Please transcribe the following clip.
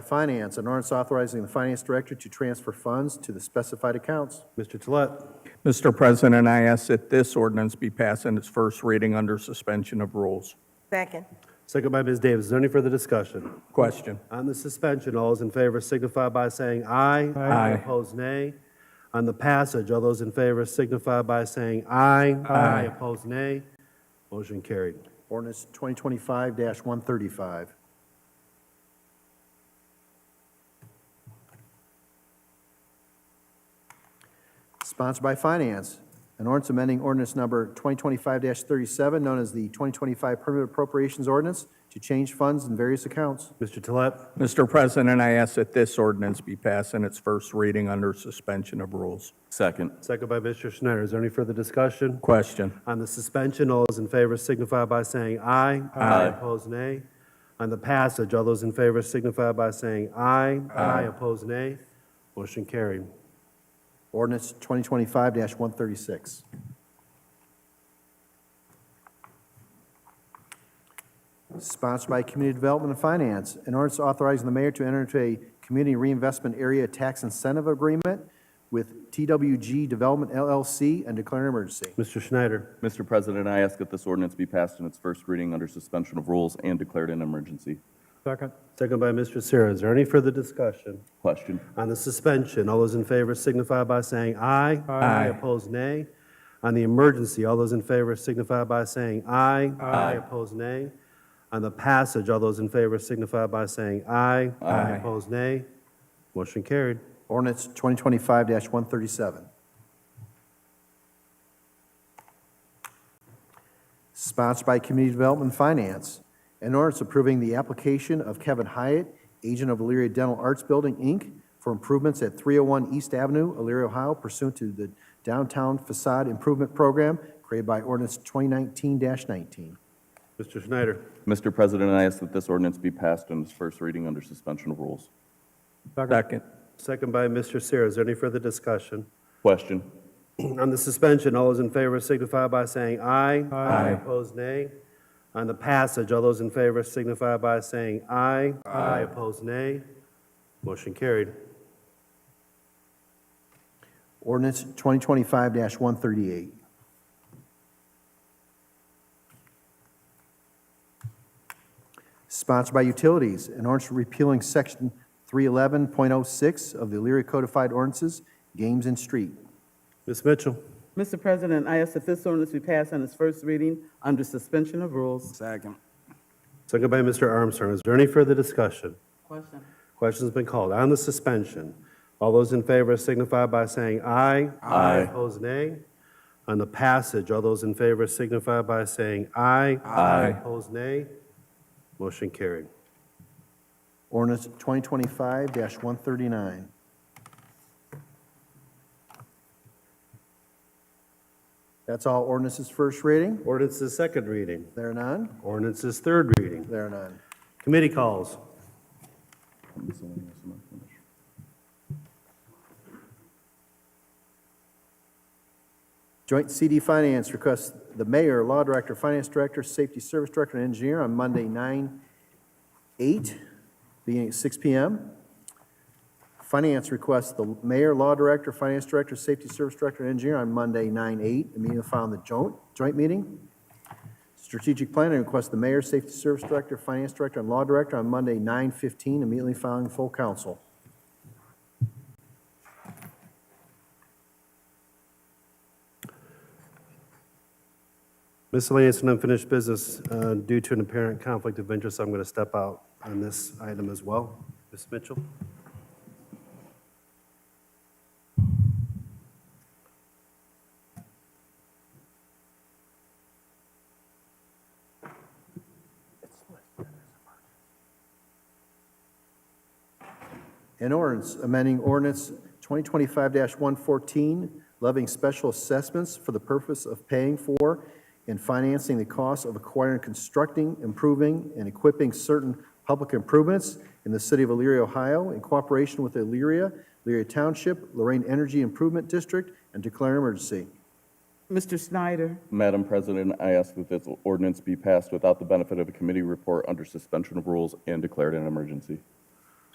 Finance, an ordinance authorizing the finance director to transfer funds to the specified accounts. Mr. Tolet. Mr. President, I ask that this ordinance be passed in its first reading under suspension of rules. Second. Second by Ms. Davis. Is there any further discussion? Question. On the suspension, all those in favor signify by saying aye. Aye. Opposed, nay. On the passage, all those in favor signify by saying aye. Aye. Opposed, nay. Motion carried. Ordinance 2025-135. Sponsored by Finance, an ordinance amending ordinance number 2025-37, known as the 2025 Permanent Appropriations Ordinance, to change funds in various accounts. Mr. Tolet. Mr. President, I ask that this ordinance be passed in its first reading under suspension of rules. Second. Second by Mr. Schneider. Is there any further discussion? Question. On the suspension, all those in favor signify by saying aye. Aye. Opposed, nay. On the passage, all those in favor signify by saying aye. Aye. Opposed, nay. Motion carried. Ordinance 2025-136. Sponsored by Community Development and Finance, an ordinance authorizing the mayor to enter into a community reinvestment area tax incentive agreement with TWG Development LLC and declaring an emergency. Mr. Schneider. Mr. President, I ask that this ordinance be passed in its first reading under suspension of rules and declared an emergency. Second. Second by Mr. Sarah. Is there any further discussion? Question. On the suspension, all those in favor signify by saying aye. Aye. Opposed, nay. On the emergency, all those in favor signify by saying aye. Aye. Opposed, nay. On the passage, all those in favor signify by saying aye. Aye. Opposed, nay. Motion carried. Ordinance 2025-137. Sponsored by Community Development and Finance. An ordinance approving the application of Kevin Hyatt, agent of Elyria Dental Arts Building, Inc., for improvements at 301 East Avenue, Elyria, Ohio pursuant to the Downtown Facade Improvement Program created by ordinance 2019-19. Mr. Schneider. Mr. President, I ask that this ordinance be passed in its first reading under suspension of rules. Second. Second by Mr. Sarah. Is there any further discussion? Question. On the suspension, all those in favor signify by saying aye. Aye. Opposed, nay. On the passage, all those in favor signify by saying aye. Aye. Opposed, nay. Motion carried. Ordinance 2025-138. Sponsored by Utilities, an ordinance repealing Section 311.06 of the Elyria Codified Ordinances, Games and Street. Ms. Mitchell. Mr. President, I ask that this ordinance be passed on its first reading under suspension of rules. Second. Second by Mr. Armstrong. Is there any further discussion? Question. Question's been called. On the suspension, all those in favor signify by saying aye. Aye. Opposed, nay. On the passage, all those in favor signify by saying aye. Aye. Opposed, nay. Motion carried. Ordinance 2025-139. That's all ordinances first reading. Ordinance is second reading. There are none? Ordinance is third reading. There are none. Committee calls. Joint CD Finance requests the mayor, law director, finance director, safety service director, and engineer on Monday, 9/8, beginning at 6 PM. Finance requests the mayor, law director, finance director, safety service director, and engineer on Monday, 9/8, immediately following the joint, joint meeting. Strategic planning requests the mayor, safety service director, finance director, and law director on Monday, 9/15, immediately following full council. Miscellaneous and unfinished business, uh, due to an apparent conflict of interest, I'm going to step out on this item as well. Ms. Mitchell? An ordinance amending ordinance 2025-114, levying special assessments for the purpose of paying for and financing the cost of acquiring, constructing, improving, and equipping certain public improvements in the city of Elyria, Ohio, in cooperation with Elyria, Elyria Township, Lorraine Energy Improvement District, and declaring emergency. Mr. Snyder, Madam President, I ask that this ordinance be passed without the benefit of a committee report under suspension of rules and declared an emergency.